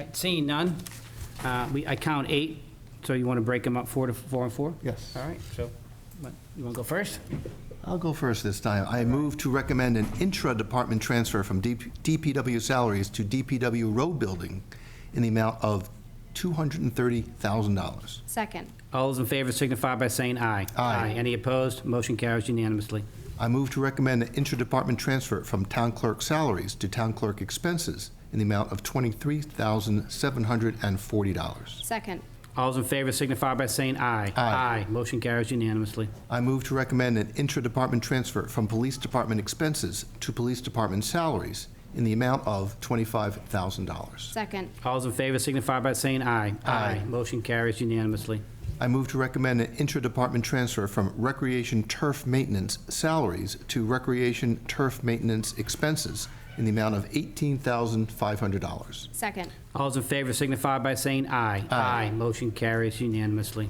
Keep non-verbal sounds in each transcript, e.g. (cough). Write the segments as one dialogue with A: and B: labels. A: Right, Seeing none, uh, we, I count eight, so you want to break them up four to, four and four?
B: Yes.
A: All right, so, what, you want to go first?
B: I'll go first this time. I move to recommend an intra-department transfer from DP DPW salaries to DPW road building in the amount of $230,000.
C: Second.
A: All those in favor signify by saying aye.
B: Aye.
A: Any opposed? Motion carries unanimously.
B: I move to recommend an intra-department transfer from town clerk salaries to town clerk expenses in the amount of $23,740.
C: Second.
A: All those in favor signify by saying aye.
B: Aye.
A: Motion carries unanimously.
B: I move to recommend an intra-department transfer from police department expenses to police department salaries in the amount of $25,000.
C: Second.
A: All those in favor signify by saying aye.
B: Aye.
A: Motion carries unanimously.
B: I move to recommend an intra-department transfer from recreation turf maintenance salaries to recreation turf maintenance expenses in the amount of $18,500.
C: Second.
A: All those in favor signify by saying aye.
B: Aye.
A: Motion carries unanimously.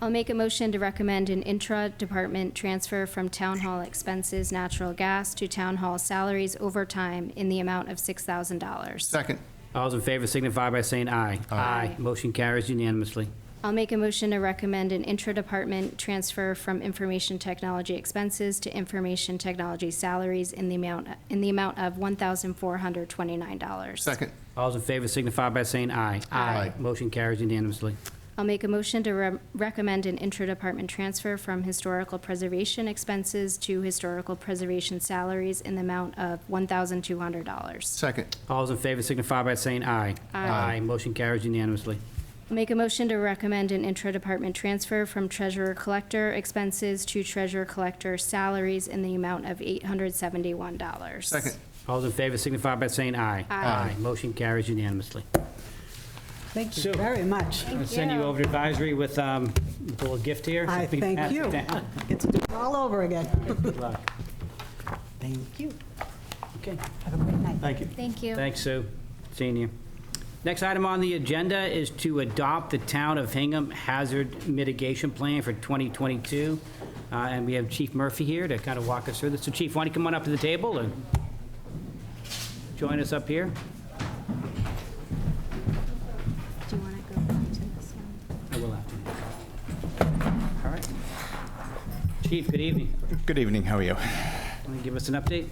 C: I'll make a motion to recommend an intra-department transfer from town hall expenses, natural gas, to town hall salaries overtime in the amount of $6,000.
B: Second.
A: All those in favor signify by saying aye.
C: Aye.
A: Motion carries unanimously.
C: I'll make a motion to recommend an intra-department transfer from information technology expenses to information technology salaries in the amount, in the amount of $1,429.
B: Second.
A: All those in favor signify by saying aye.
B: Aye.
A: Motion carries unanimously.
C: I'll make a motion to re- recommend an intra-department transfer from historical preservation expenses to historical preservation salaries in the amount of $1,200.
B: Second.
A: All those in favor signify by saying aye.
C: Aye.
A: Motion carries unanimously.
C: I'll Make a motion to recommend an intra-department transfer from treasurer-collector expenses to treasurer-collector salaries in the amount of $871.
B: Second.
A: All those in favor signify by saying aye.
C: Aye.
A: Motion carries unanimously.
D: Thank
A: So-
D: you very much.
A: I'll send you
C: you.
A: over to advisory with um, a little gift here.
D: I
A: Something-
D: thank you.
A: (laughs)
D: It's all over again.
A: Good luck.
D: Thank you.
A: Okay,
D: Have a great night.
B: Thank you.
C: Thank you.
A: thanks, Sue. Seeing you. Next item on the agenda is to adopt the Town of Hingham Hazard Mitigation Plan for 2022. Uh, And we have Chief Murphy here to kind of walk us through this. So Chief, why don't you come on up to the table and join us up here?
C: Do you want to go back to this one?
A: I will after you. All right. Chief, good evening.
E: Good evening, how are you?
A: Want to give us an update?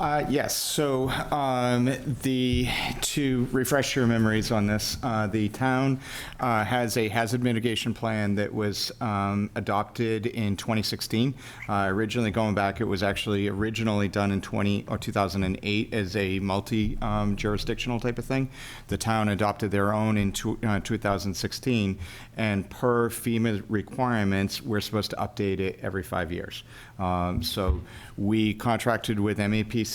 E: Uh, Yes, so um, the, to refresh your memories on this, uh, the town uh, has a hazard mitigation plan that was um, adopted in 2016. Uh, Originally, going back, it was actually originally done in 20, or 2008 as a multi-jurisdictional type of thing. The town adopted their own in tw- uh, 2016, and per FEMA requirements, we're supposed to update it every five years. Um, So we contracted with MAPC,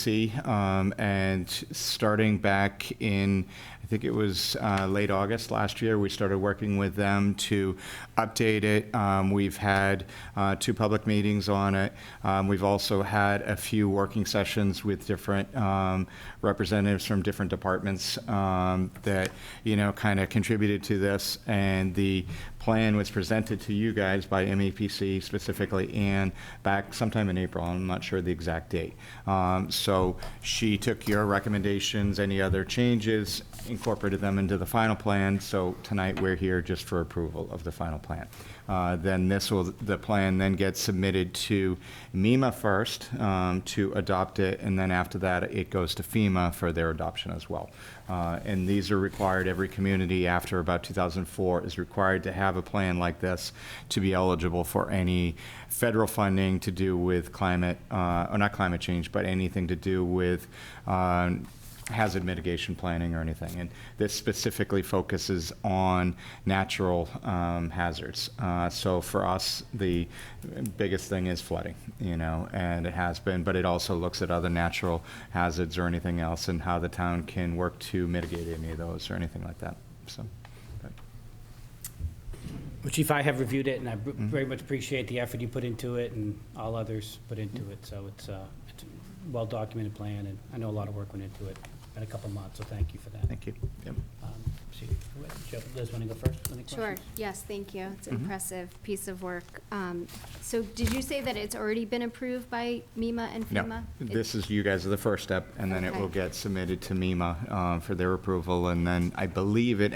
E: um, and starting back in, I think it was uh, late August last year, we started working with them to update it. Um, We've had uh, two public meetings on it. Um, We've also had a few working sessions with different um, representatives from different departments um, that, you know, kind of contributed to this. And the plan was presented to you guys by MAPC specifically, and back sometime in April, I'm not sure the exact date. Um, So she took your recommendations, any other changes, incorporated them into the final plan, so tonight we're here just for approval of the final plan. Uh, Then this will, the plan then gets submitted to MEMA first um, to adopt it, and then after that, it goes to FEMA for their adoption as well. Uh, And these are required, every community after about 2004 is required to have a plan like this to be eligible for any federal funding to do with climate, uh, or not climate change, but anything to do with um, hazard mitigation planning or anything. And this specifically focuses on natural um, hazards. Uh, So for us, the biggest thing is flooding, you know, and it has been, but it also looks at other natural hazards or anything else and how the town can work to mitigate any of those or anything like that, so. but-
A: Well, Chief, I have reviewed it, and I br- very much appreciate the effort you put into it and all others put into it, so it's uh, it's a well-documented plan, and I know a lot of work went into it in a couple months, so thank you for that.
E: Thank you. Yep.
A: Um, so you- go ahead. Joe, Liz, want to go first? Any
C: Sure,
A: questions? Mm-hmm.
C: yes, thank you. It's an impressive piece of work. Um, So did you say that it's already been approved by MEMA and
E: No,
C: FEMA? It-
E: this is, you guys are the first step, and then it
C: Okay.
E: E will get submitted to MEMA uh, for their approval, and then I believe it